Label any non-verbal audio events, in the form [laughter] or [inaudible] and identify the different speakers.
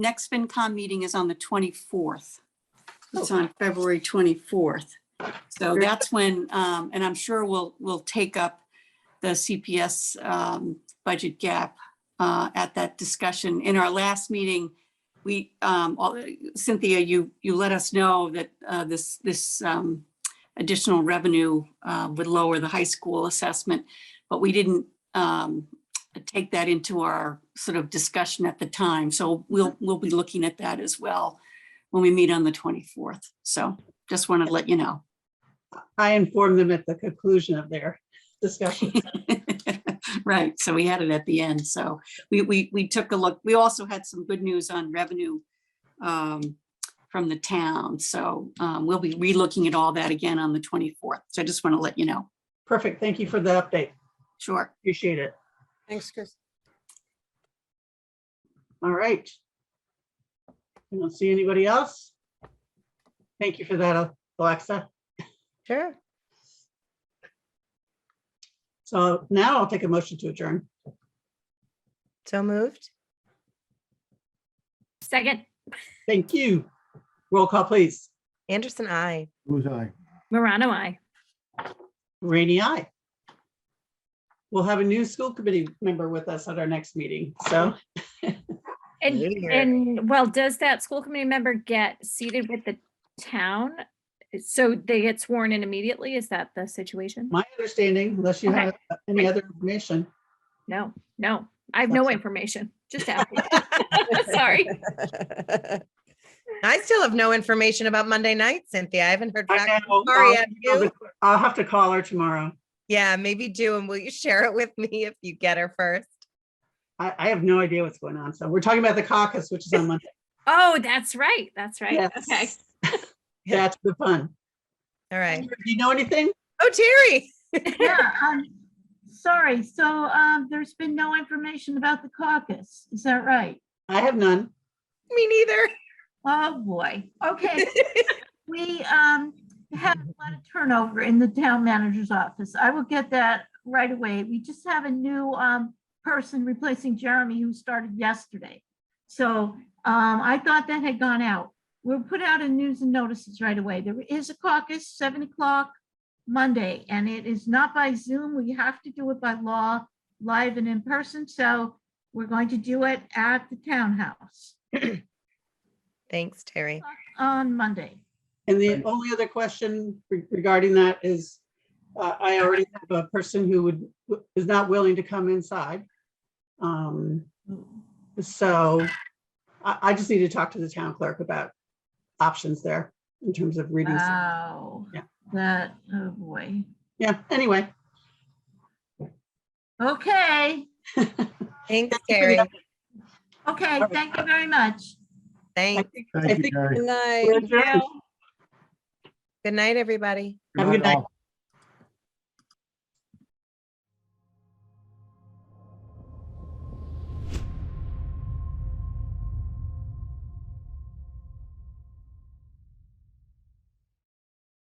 Speaker 1: next FinCom meeting is on the 24th. It's
Speaker 2: Oh.
Speaker 1: on February 24th. So that's when, um, and I'm sure we'll, we'll take up the CPS um, budget gap uh, at that discussion. In our last meeting, we, um, all- Cynthia, you, you let us know that uh, this, this um, additional revenue uh, would lower the high school assessment, but we didn't um, take that into our sort of discussion at the time. So we'll, we'll be looking at that as well when we meet on the 24th. So just wanted to let you know. [laughs]
Speaker 2: I informed them at the conclusion of their discussion.
Speaker 1: Right, so we had it at the end, so we, we, we took a look, we also had some good news on revenue um, from the town, so um, we'll be relooking at all that again on the 24th, so I just want to let you know,
Speaker 2: Perfect. Thank you for the update.
Speaker 1: sure.
Speaker 2: Appreciate it.
Speaker 3: Thanks, Chris.
Speaker 2: All right. I don't see anybody else. Thank you for that, Alexa.
Speaker 3: Sure.
Speaker 2: So now I'll take a motion to adjourn.
Speaker 3: So moved.
Speaker 4: Second,
Speaker 2: Thank you. Roll call, please.
Speaker 3: Anderson, I.
Speaker 5: Who's I?
Speaker 4: Morano, I.
Speaker 2: Rainy eye. We'll have a new school committee member with us at our next meeting. So
Speaker 4: And,
Speaker 3: Later.
Speaker 4: and well, does that school committee member get seated with the town? So they get sworn in immediately? Is that the situation?
Speaker 2: my understanding, unless you have any other information.
Speaker 4: No, no, I have no
Speaker 2: Gotcha.
Speaker 4: information. Just asking. [laughs] Sorry.
Speaker 3: [laughs]
Speaker 2: [laughs]
Speaker 3: I still have no information about Monday night, Cynthia. I haven't heard
Speaker 2: I
Speaker 3: back.
Speaker 2: know,
Speaker 3: Sorry,
Speaker 2: I'll-
Speaker 3: have you?
Speaker 2: I'll have to call her tomorrow.
Speaker 3: Yeah, maybe do. And will you share it with me if you get her first?
Speaker 2: I, I have no idea what's going on. So we're talking about the caucus, which
Speaker 4: [laughs]
Speaker 2: is on Monday.
Speaker 4: Oh, that's right. That's right. Okay.
Speaker 2: Yes. [laughs] That's the fun.
Speaker 3: All right.
Speaker 2: Do you know anything?
Speaker 3: Oh, Terry. [laughs]
Speaker 6: Yeah, um, sorry, so, um, there's been no information about the caucus, is that right?
Speaker 2: I have none.
Speaker 3: Me neither.
Speaker 6: Oh, boy, okay. We, um, have a lot of turnover in the town manager's office, I will get that right away. We just have a new, um, person replacing Jeremy who started yesterday. So, um, I thought that had gone out. We'll put out a news and notices right away. There is a caucus, seven o'clock Monday, and it is not by Zoom. We have to do it by law, live and in person, so we're going to do it at the townhouse
Speaker 3: Thanks, Terry.
Speaker 6: on Monday.
Speaker 2: And the only other question re- regarding that is, uh, I already have a person who would, is not willing to come inside. Um, So I, I just need to talk to the town clerk about options there in terms of readings.
Speaker 6: Wow.
Speaker 2: Yeah.
Speaker 6: That, oh boy.
Speaker 2: Yeah, anyway.
Speaker 6: Okay,
Speaker 3: Thanks,
Speaker 2: for the
Speaker 3: Terry.
Speaker 6: okay,
Speaker 2: right.
Speaker 6: thank you very much.
Speaker 2: I
Speaker 3: Thanks.
Speaker 2: think- I
Speaker 5: Thank you,
Speaker 2: think
Speaker 5: Terry.
Speaker 2: we're adjourned.
Speaker 3: Good night, everybody.
Speaker 2: Have a good night.
Speaker 5: all.